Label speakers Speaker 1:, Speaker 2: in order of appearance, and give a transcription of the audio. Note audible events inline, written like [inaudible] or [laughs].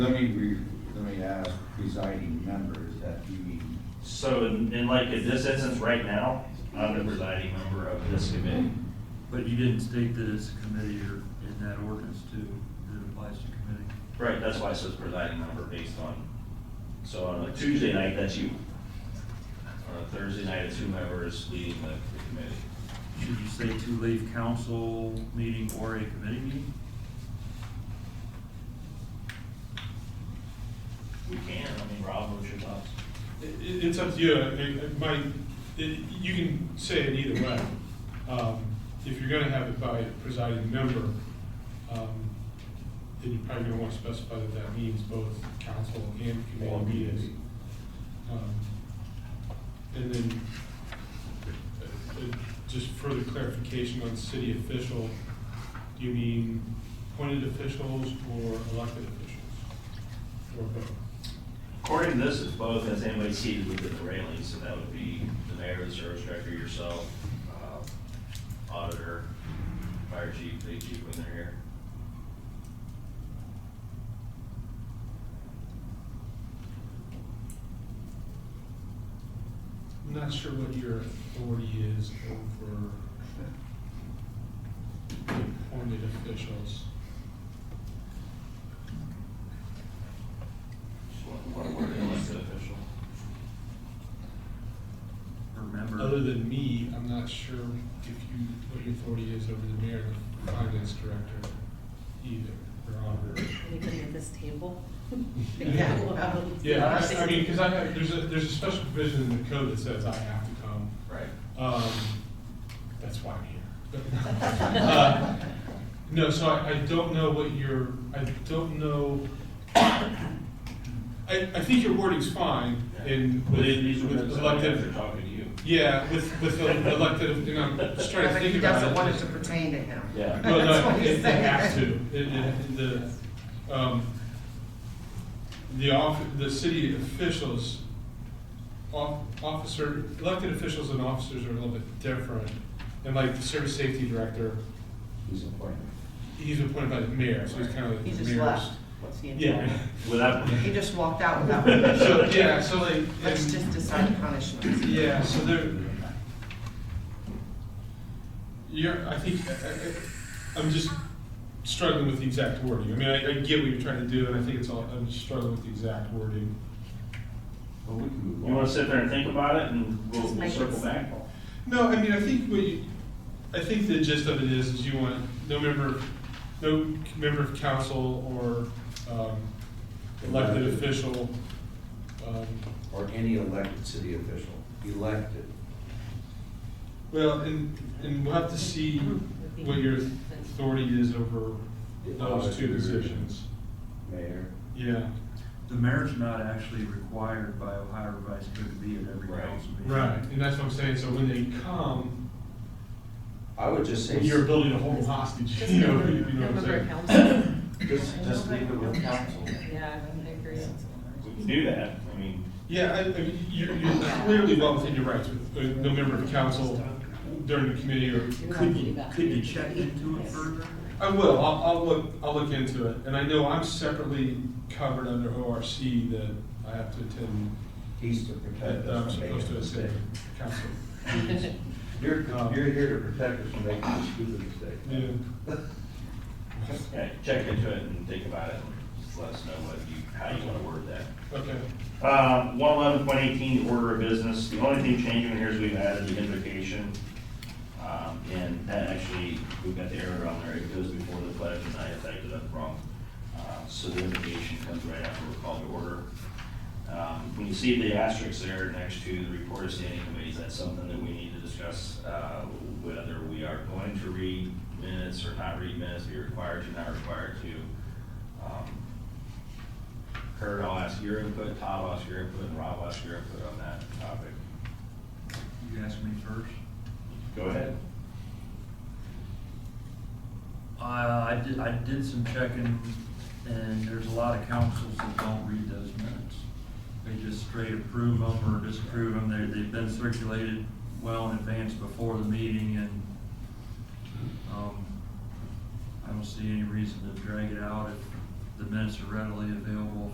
Speaker 1: Let me, re- let me ask presiding members that you mean,
Speaker 2: So in, in like in this instance right now, I'm the presiding member of this committee.
Speaker 3: But you didn't state that it's a committee or in that ordinance too, that it applies to committee.
Speaker 2: Right, that's why it says presiding member based on, so on a Tuesday night, that's you. On a Thursday night, it's whomever is leading the the committee.
Speaker 3: Should you say to leave council meeting or a committee meeting?
Speaker 2: We can, I mean, Rob, what's your thoughts?
Speaker 4: It, it- it's up to you, I mean, it might, it, you can say it either way. Um, if you're gonna have it by presiding member, um, then you're probably gonna wanna specify that that means both council and
Speaker 2: Or
Speaker 4: committee meetings. Um, And then, uh, uh, just further clarification on city official, do you mean appointed officials or elected officials? Or both?
Speaker 2: According to this, it's both, as anybody seated within the railings, so that would be the mayor, the service director, yourself, uh, auditor, fire chief, big chief when they're here.
Speaker 4: I'm not sure what your authority is over appointed officials.
Speaker 2: What, what, what, elected official?
Speaker 3: Or member?
Speaker 4: Other than me, I'm not sure if you, what your authority is over the mayor and the finance director either, or auditor.
Speaker 5: Anybody at this table?
Speaker 4: Yeah. Yeah, I, I mean, because I have, there's a, there's a special provision in the code that says I have to come.
Speaker 2: Right.
Speaker 4: Um, that's why I'm here. [laughs] Uh, No, so I, I don't know what your, I don't know. I, I think your wording's fine in,
Speaker 2: But
Speaker 4: with
Speaker 2: it needs to be
Speaker 4: with
Speaker 2: elected,
Speaker 4: elected,
Speaker 2: talking to you.
Speaker 4: yeah, with, with the elected, and I'm just trying to
Speaker 6: But
Speaker 4: think
Speaker 6: he
Speaker 4: about it.
Speaker 6: doesn't want it to pertain to him.
Speaker 2: Yeah.
Speaker 6: [laughs]
Speaker 4: Well,
Speaker 6: That's
Speaker 4: no,
Speaker 6: what
Speaker 4: it,
Speaker 6: he's
Speaker 4: it has to,
Speaker 6: saying.
Speaker 4: it, it, the, um, the off, the city officials, off, officer, elected officials and officers are a little bit different. And like the service safety director,
Speaker 1: who's appointed.
Speaker 4: he's appointed by the mayor, so he's kind of like the
Speaker 6: He
Speaker 4: mayor's.
Speaker 6: just left. What's he doing?
Speaker 4: Yeah,
Speaker 2: Without,
Speaker 6: He just walked out
Speaker 4: [laughs]
Speaker 6: without
Speaker 4: so,
Speaker 6: permission.
Speaker 4: yeah, so like.
Speaker 6: Let's
Speaker 4: and-
Speaker 6: just decide punishments.
Speaker 4: Yeah, so there. You're, I think, I- I, I'm just struggling with the exact wording. I mean, I, I get what you're trying to do, and I think it's all, I'm just struggling with the exact wording.
Speaker 1: Well, we can move on.
Speaker 2: you wanna sit there and think about it and we'll,
Speaker 5: Just
Speaker 2: we'll
Speaker 5: make it
Speaker 2: circle
Speaker 5: s-
Speaker 2: back?
Speaker 4: No, I mean, I think what you, I think the gist of it is, is you want no member, no member of council or, um, elected official, um,
Speaker 1: Or any elected city official, elected.
Speaker 4: Well, and, and we'll have to see what your authority is over those two positions.
Speaker 1: Mayor.
Speaker 4: Yeah.
Speaker 3: The mayor's not actually required by Ohio Vice Code to be at every
Speaker 2: Right.
Speaker 3: council meeting.
Speaker 4: Right, and that's what I'm saying, so when they come,
Speaker 1: I would just say,
Speaker 4: your ability to hold them hostage, [laughs]
Speaker 5: Just
Speaker 4: you know, you know what I'm
Speaker 5: member of
Speaker 4: saying?
Speaker 5: council.
Speaker 1: just, just leave it with council.
Speaker 5: Yeah, I agree.
Speaker 2: We can do that, I mean,
Speaker 4: Yeah, I, I mean, you're, you're clearly well within your rights with, with no member of council during the committee or.
Speaker 3: Could you, could you check into it further?
Speaker 4: I will, I'll, I'll look, I'll look into it, and I know I'm separately covered under ORC that I have to attend,
Speaker 1: He's to protect
Speaker 4: that I'm
Speaker 1: us from
Speaker 4: supposed
Speaker 1: making
Speaker 4: to attend
Speaker 1: mistakes.
Speaker 4: council.
Speaker 1: You're, you're here to protect us from making a stupid mistake.
Speaker 4: Yeah.
Speaker 2: yeah, check into it and think about it, and just let us know what you, how you wanna word that.
Speaker 4: Okay.
Speaker 2: Uh, one eleven point eighteen, order of business, the only thing changing here is we've added the invocation. Um, and that actually, we've got the error on there, it goes before the pledge, and I typed it up wrong. Uh, so the invocation comes right after we're called to order. Um, when you see the asterisks there next to the report of standing committees, that's something that we need to discuss, uh, whether we are going to read minutes or not read minutes, be required to, not required to. Um, Kurt, I'll ask your input, Todd, I'll ask your input, and Rob, I'll ask your input on that topic.
Speaker 3: You asked me first.
Speaker 2: Go ahead.
Speaker 3: Uh, I did, I did some checking, and there's a lot of councils that don't read those minutes. They just straight approve them or disapprove them, they, they've been circulated well in advance before the meeting, and, um, I don't see any reason to drag it out if the minutes are readily available